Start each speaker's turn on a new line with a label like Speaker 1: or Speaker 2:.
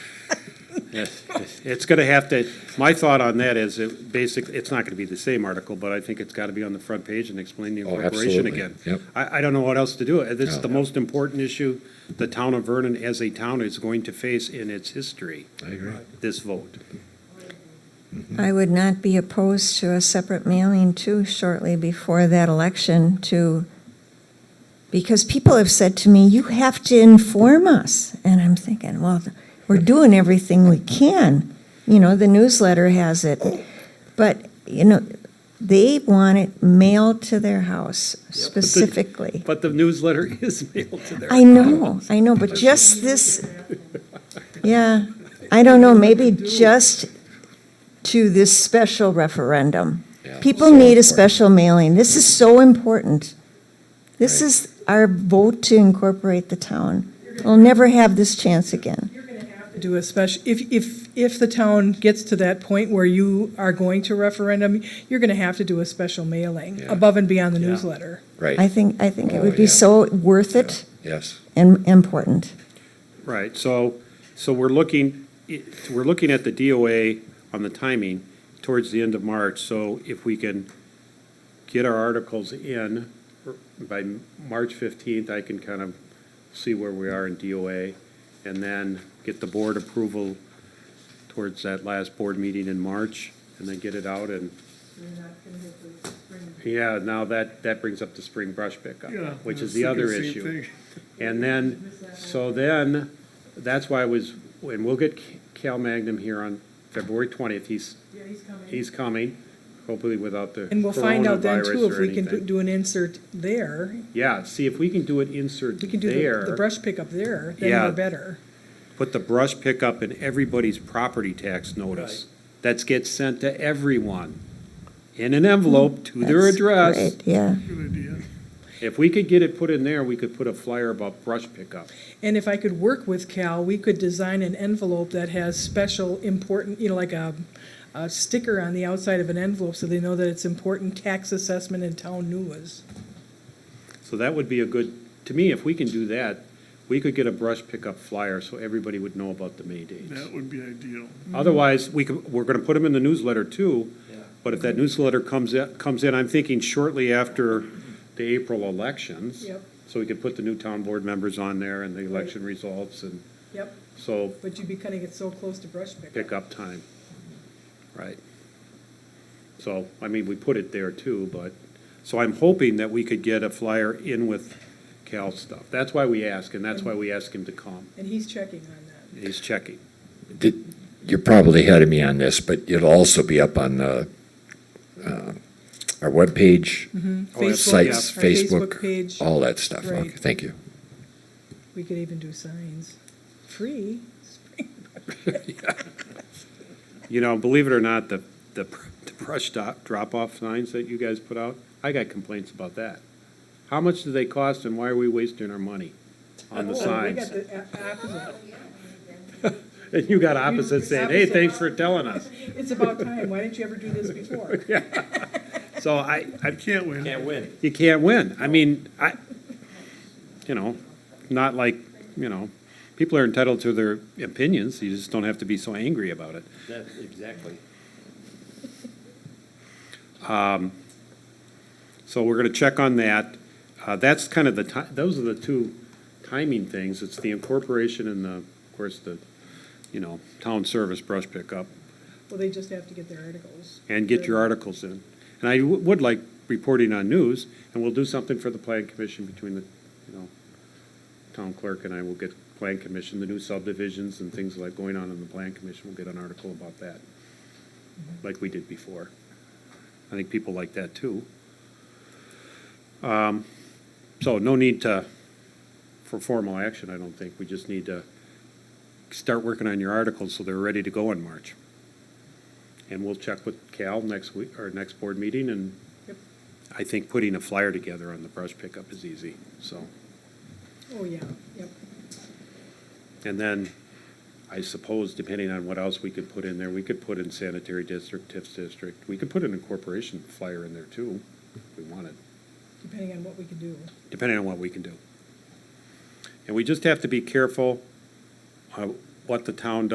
Speaker 1: It's gonna have to, my thought on that is, it basically, it's not gonna be the same article, but I think it's gotta be on the front page and explain the
Speaker 2: Oh,
Speaker 1: incorporation
Speaker 2: absolutely.
Speaker 1: again.
Speaker 2: Yep.
Speaker 1: I, I don't know what else to do. It's the
Speaker 2: No.
Speaker 1: most important issue the town of Vernon as a town is going to face in its history,
Speaker 2: I agree.
Speaker 1: this vote.
Speaker 3: I would not be opposed to a separate mailing too shortly before that election to, because people have said to me, you have to inform us. And I'm thinking, well, we're doing everything we can. You know, the newsletter has it. But, you know, they want it mailed to their house specifically.
Speaker 1: But the newsletter is mailed to their.
Speaker 3: I know, I know, but just this, yeah, I don't know, maybe just to this special referendum.
Speaker 2: Yeah,
Speaker 3: People
Speaker 2: so
Speaker 3: need a
Speaker 2: important.
Speaker 3: special mailing. This is so important. This
Speaker 2: Right.
Speaker 3: is our vote to incorporate the town. We'll never have this chance again.
Speaker 4: do a special, if, if, if the town gets to that point where you are going to referendum, you're gonna have to do a special mailing
Speaker 2: Yeah.
Speaker 4: above and beyond the newsletter.
Speaker 3: I
Speaker 2: Right,
Speaker 3: think, I think it
Speaker 2: Oh,
Speaker 3: would be
Speaker 2: yeah.
Speaker 3: so worth it
Speaker 2: yes.
Speaker 3: and important.
Speaker 1: Right, so, so we're looking, it- we're looking at the DOA on the timing towards the end of March, so if we can get our articles in er, by March fifteenth, I can kind of see where we are in DOA, and then get the board approval towards that last board meeting in March, and then get it out and. Yeah, now that, that brings up the spring brush pickup,
Speaker 5: Yeah,
Speaker 1: which is
Speaker 5: I was
Speaker 1: the
Speaker 5: thinking
Speaker 1: other
Speaker 5: same
Speaker 1: issue.
Speaker 5: thing.
Speaker 1: And then, so then, that's why I was, and we'll get Cal Magnum here on February 20th. He's,
Speaker 4: Yeah, he's coming.
Speaker 1: he's coming, hopefully without the
Speaker 4: And we'll find out then too,
Speaker 1: coronavirus
Speaker 4: if
Speaker 1: or
Speaker 4: we can do-
Speaker 1: anything.
Speaker 4: do an insert there,
Speaker 1: Yeah, see if we can do an insert
Speaker 4: we can do the- the
Speaker 1: there.
Speaker 4: brush pickup there, then
Speaker 1: Yeah.
Speaker 4: we're better.
Speaker 1: Put the brush pickup in everybody's property tax notice. That gets sent to everyone in an
Speaker 4: Mm.
Speaker 1: envelope to their
Speaker 3: That's
Speaker 1: address.
Speaker 3: great, Yeah.
Speaker 5: Good idea.
Speaker 1: If we could get it put in there, we could put a flyer about brush pickup.
Speaker 4: And if I could work with Cal, we could design an envelope that has special important, you know, like a, a sticker on the outside of an envelope so they know that it's important tax assessment and town news.
Speaker 1: So that would be a good, to me, if we can do that, we could get a brush pickup flyer so everybody would know about the May dates.
Speaker 5: That would be ideal.
Speaker 1: Otherwise, we could, we're gonna put them in the newsletter too, but if that newsletter comes, in- comes in, I'm thinking shortly after the April elections.
Speaker 4: Yep.
Speaker 1: So we could put the new town board members on there and the election results and
Speaker 4: Yep,
Speaker 1: so
Speaker 4: but you'd be cutting it so close to brush pickup.
Speaker 1: pickup time. Right. So, I mean, we put it there too, but, so I'm hoping that we could get a flyer in with Cal stuff. That's why we ask, and that's why we ask him to come.
Speaker 4: And he's checking on that.
Speaker 1: He's checking.
Speaker 2: Did- You're probably ahead of me on this, but it'll also be up on uh, uh, our webpage,
Speaker 4: Mm-hmm. Facebook,
Speaker 2: Oh, sites,
Speaker 4: our Facebook
Speaker 2: Facebook,
Speaker 4: page.
Speaker 2: all that stuff.
Speaker 4: Right.
Speaker 2: Okay, thank you.
Speaker 4: We could even do signs. Free.
Speaker 1: You know, believe it or not, the, the pr- the brush drop, drop-off signs that you guys put out, I got complaints about that. How much do they cost and why are we wasting our money on the
Speaker 4: Oh, we
Speaker 1: signs?
Speaker 4: got the a- opposite.
Speaker 1: And you got opposite saying, hey, thanks for telling us.
Speaker 4: It's about time. Why didn't you ever do this before?
Speaker 1: So I, I
Speaker 5: I can't win.
Speaker 1: win. You can't win. I mean, I, you know, not like, you know, people are entitled to their opinions, you just don't have to be so angry about it.
Speaker 6: That, exactly.
Speaker 1: Um, So we're gonna check on that. Uh, that's kind of the ti- those are the two timing things. It's the incorporation and the, of course, the, you know, town service brush pickup.
Speaker 4: Well, they just have to get their articles.
Speaker 1: and get your articles in. And I w- would like reporting on news, and we'll do something for the plan commission between the, you know, town clerk and I will get plan commission, the new subdivisions and things like going on in the plan commission, we'll get an article about that, like we did before. I think people like that too. Um, So no need to, for formal action, I don't think, we just need to start working on your articles so they're ready to go in March. And we'll check with Cal next week, or next board meeting, and
Speaker 4: Yep.
Speaker 1: I think putting a flyer together on the brush pickup is easy, so.
Speaker 4: Oh, yeah, yep.
Speaker 1: And then, I suppose, depending on what else we could put in there, we could put in sanitary district, TIF district, we could put an incorporation flyer in there too, if we wanted,
Speaker 4: Depending on what we can do.
Speaker 1: depending on what we can do. And we just have to be careful uh, what the town does